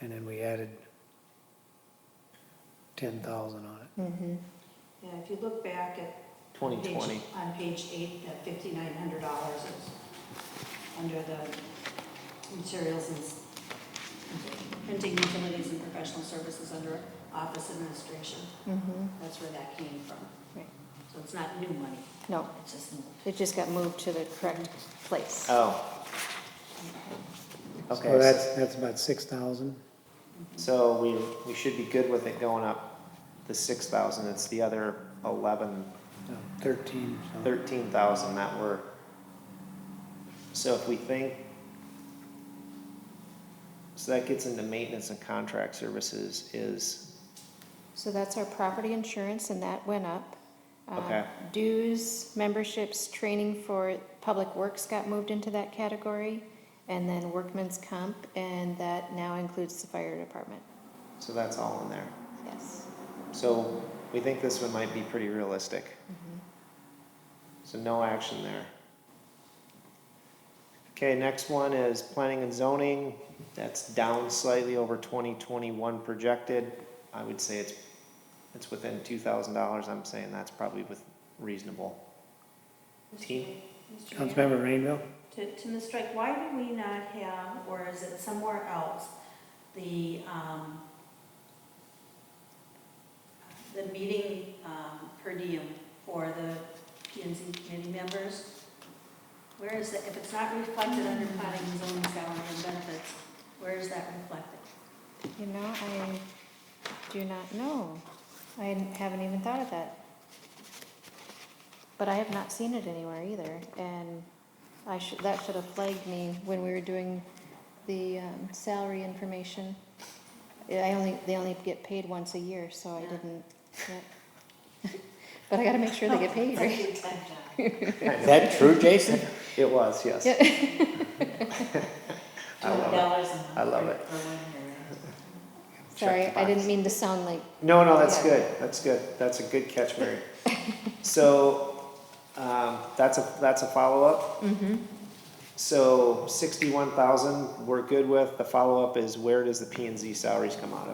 and then we added ten thousand on it. Mm-hmm, Yeah, if you look back at. Twenty page- twenty. On page eight, that fifty-nine hundred dollars is under the materials and, s- printing utilities and professional services under office administration. mm-hmm. That's where that came from. Right. So it's not new money, No, it's just moved. it just got moved to the correct place. Oh. Okay, So that's, that's about six thousand. so we, we should be good with it going up the six thousand, it's the other eleven, No, uh, thirteen. so- thirteen thousand that we're. So if we think. So that gets into maintenance and contract services is, So that's our property insurance, and that went up. Uh, Okay. Dues, memberships, training for public works got moved into that category, and then workman's comp, and that now includes the fire department, so that's all in there. yes. So we think this one might be pretty realistic. Mm-hmm. So no action there. Okay, next one is planning and zoning. That's down slightly over twenty twenty-one projected. I would say it's, it's within two thousand dollars. I'm saying that's probably with reasonable. Team? Mr. Mayor. Councilmember Rainville? To, to Ms. Drake, why do we not have, or is it somewhere else, the, um, the meeting, um, per diem for the P and Z committee members? Where is that, if it's not reflected under planning and zoning salary and benefits, where is that reflected? You know, I do not know. I haven't even thought of that. But I have not seen it anywhere either, and I should, that should have flagged me when we were doing the um, salary information. I only, they only get paid once a year, so I didn't, yeah. But I gotta make sure they get paid, right? Is that true, Jason? It was, yes. Yeah. I love it. dollars a month. I love it. for one year. Check the Sorry, I box. didn't mean to sound like, No, no, that's Yeah. good. That's good. That's a good catch, Mary. so um, that's a that's a follow up. So sixty one thousand we're good with. The follow up is where does the P and Z salaries come out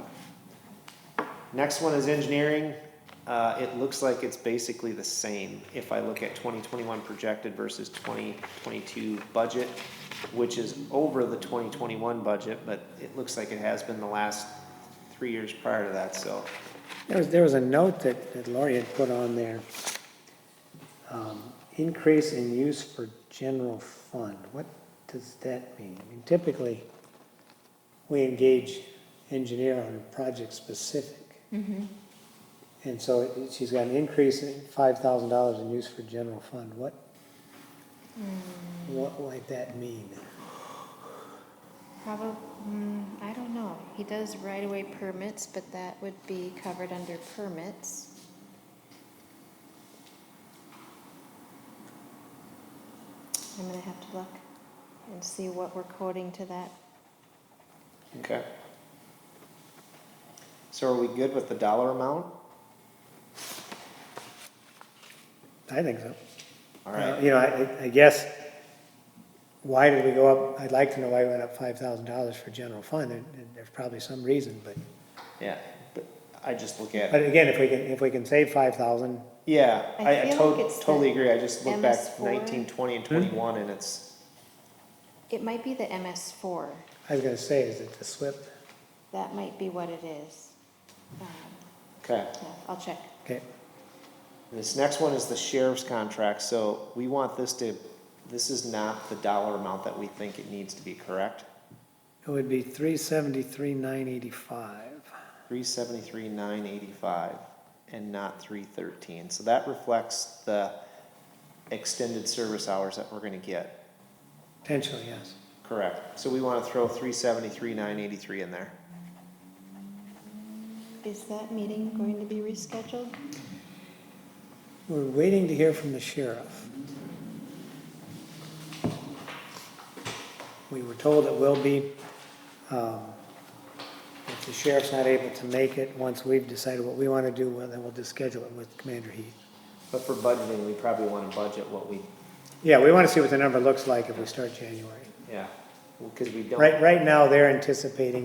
of? Next one is engineering. Uh, it looks like it's basically the same if I look at 2021 projected versus 2022 budget, which is over the 2021 budget, but it looks like it has been the last three years prior to that, so. There was, there was a note that, that Lori had put on there. Um, Increase in use for general fund. What does that mean? I mean, Typically, we engage engineer on a project specific. And so it- she's got an increase in five thousand dollars in use for general fund. What, what might that mean? probably, mm, I don't know. He does right-of-way permits, but that would be covered under permits. I'm gonna have to look and see what we're coding to that. Okay. So are we good with the dollar amount? I think so. All Uh, right, You know, I, I guess, why did we go up, I'd like to know why we went up five thousand dollars for general fund, and, and there's probably some reason, but, yeah, but I just look at, but again, if we can, if we can save five thousand, yeah, I I I feel like to- it's the totally agree, I just look back MS4. nineteen, twenty, and twenty-one, and it's, It might be the MS four. I was gonna say, is it the SWIP? That might be what it is. Um, okay. Yeah, I'll check. Okay, This next one is the sheriff's contract, so we want this to, this is not the dollar amount that we think it needs to be, correct? it would be three seventy-three, nine eighty-five. Three seventy-three, nine eighty-five, and not three thirteen, so that reflects the extended service hours that we're gonna get, Potentially, yes. correct? So we wanna throw three seventy-three, nine eighty-three in there. Is that meeting going to be rescheduled? We're waiting to hear from the sheriff. We were told it will be, um, if the sheriff's not able to make it, once we've decided what we want to do, well, then we'll just schedule it with Commander Heath. But for budgeting, we probably wanna budget what we, Yeah, we want to see what the number looks like if we start January. yeah, because we don't. Right, right now, they're anticipating